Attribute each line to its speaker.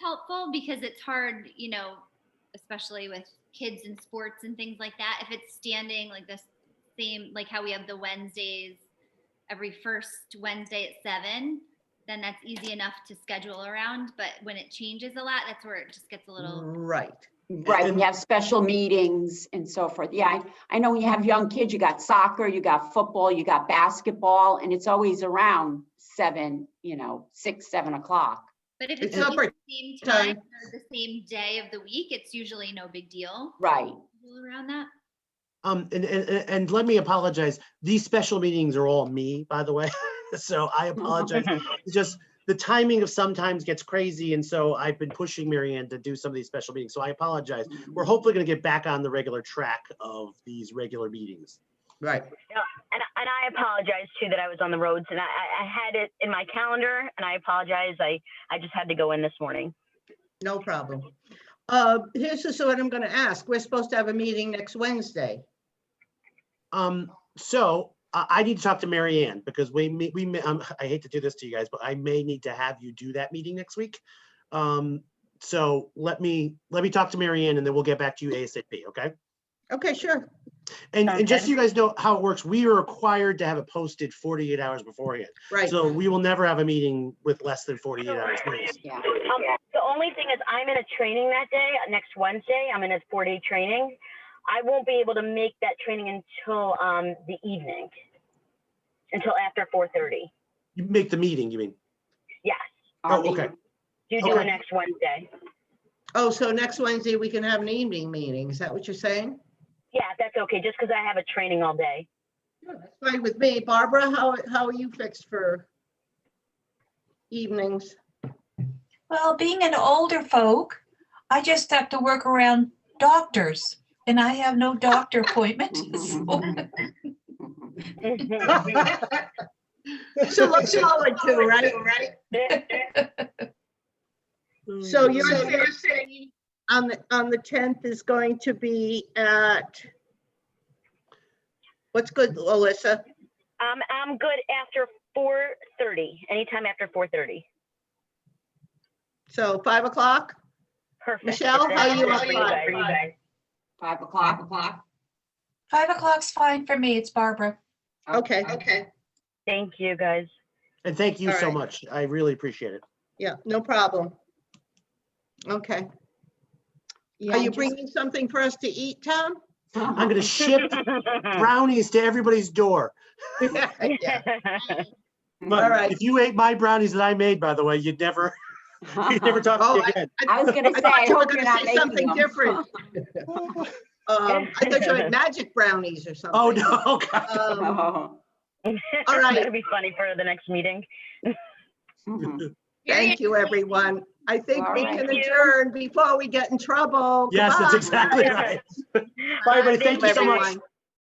Speaker 1: helpful because it's hard, you know, especially with kids and sports and things like that. If it's standing like this same, like how we have the Wednesdays every first Wednesday at seven, then that's easy enough to schedule around. But when it changes a lot, that's where it just gets a
Speaker 2: Mm-hmm.
Speaker 1: little,
Speaker 3: Right.
Speaker 4: Right,
Speaker 3: And-
Speaker 4: we have special meetings and so forth. Yeah, I, I know when you have young kids, you got soccer, you got football, you got basketball, and it's always around seven, you know, six, seven o'clock.
Speaker 1: but if it's
Speaker 3: It's not
Speaker 1: always the same
Speaker 3: time.
Speaker 1: time, or the same day of the week, it's usually no big deal
Speaker 4: Right,
Speaker 1: around that.
Speaker 3: Um, and, and, and- and let me apologize. These special meetings are all me, by the way. So I apologize. It's just the timing of sometimes gets crazy. And so I've been pushing Marianne to do some of these special meetings. So I apologize. We're hopefully going to get back on the regular track of these regular meetings.
Speaker 2: Right.
Speaker 5: And, and I apologize too that I was on the roads and I, I I had it in my calendar and I apologize. I, I just had to go in this morning.
Speaker 2: No problem. Uh, Here's just what I'm going to ask. We're supposed to have a meeting next Wednesday.
Speaker 3: Um, so I, I need to talk to Marianne because we, may- we, may- um, I hate to do this to you guys, but I may need to have you do that meeting next week. Um, so let me, let me talk to Marianne, and then we'll get back to you ASAP, okay?
Speaker 2: Okay, sure.
Speaker 3: And, and just so
Speaker 5: Okay.
Speaker 3: you guys know how it works, we are required to have it posted forty-eight hours beforehand.
Speaker 2: Right.
Speaker 3: So we will never have a meeting with less than forty-eight hours notice.
Speaker 4: yeah.
Speaker 5: Um, the only thing is I'm in a training that day, uh, next Wednesday, I'm in a four day training. I won't be able to make that training until, um, the evening. Until after four thirty.
Speaker 3: You make the meeting, you mean?
Speaker 5: Yes.
Speaker 4: I'll
Speaker 3: Oh,
Speaker 4: be-
Speaker 3: okay.
Speaker 5: You do
Speaker 3: Okay.
Speaker 5: it next Wednesday.
Speaker 2: Oh, so next Wednesday, we can have an evening meeting. Is that what you're saying?
Speaker 5: Yeah, that's okay. Just because I have a training all day.
Speaker 2: Sure, That's fine with me. Barbara, how, how are you fixed for evenings?
Speaker 6: Well, being an older folk, I just have to work around doctors, and I have no doctor appointment. so-
Speaker 3: Mm-hmm.
Speaker 2: So let's all like two, right? So you're saying on the, on the 10th is going to be at, what's good, Alyssa?
Speaker 5: Um, I'm good after four thirty, anytime after four thirty.
Speaker 2: So 5 o'clock?
Speaker 5: Perfect.
Speaker 2: Michelle,
Speaker 5: If
Speaker 2: how
Speaker 5: that's
Speaker 2: you
Speaker 5: good for
Speaker 2: on
Speaker 5: guys.
Speaker 4: Five o'clock, o'clock.
Speaker 6: Five o'clock's fine for me. It's Barbara.
Speaker 2: Okay,
Speaker 4: Okay.
Speaker 5: Thank you, guys.
Speaker 3: And thank you
Speaker 2: All
Speaker 3: so
Speaker 2: right.
Speaker 3: much. I really appreciate it.
Speaker 2: yeah, no problem. Okay.
Speaker 4: Yeah,
Speaker 2: Are you
Speaker 4: just-
Speaker 2: bringing something for us to eat, Tom?
Speaker 3: I'm gonna ship brownies to everybody's door.
Speaker 2: Yeah.
Speaker 3: But
Speaker 2: All right.
Speaker 3: If you ate my brownies that I made, by the way, you'd never, you'd never talk to
Speaker 2: Oh,
Speaker 3: me
Speaker 2: I-
Speaker 3: again.
Speaker 4: I was gonna
Speaker 2: I
Speaker 4: say, I
Speaker 2: thought you were
Speaker 4: hope you're
Speaker 2: going
Speaker 4: not
Speaker 2: to say
Speaker 4: making
Speaker 2: something
Speaker 4: them.
Speaker 2: different. Um, I thought you had magic brownies or something.
Speaker 3: Oh, no. God.
Speaker 2: Um,
Speaker 4: Oh.
Speaker 2: All right.
Speaker 5: That'll be funny for the next meeting.
Speaker 4: Mhm.
Speaker 2: Thank you, everyone. I think we
Speaker 4: All
Speaker 2: can
Speaker 5: right.
Speaker 2: adjourn before we get in trouble.
Speaker 3: Yes, that's
Speaker 2: Goodbye.
Speaker 3: exactly right. Bye, everybody. Thank you so much.
Speaker 2: Everyone.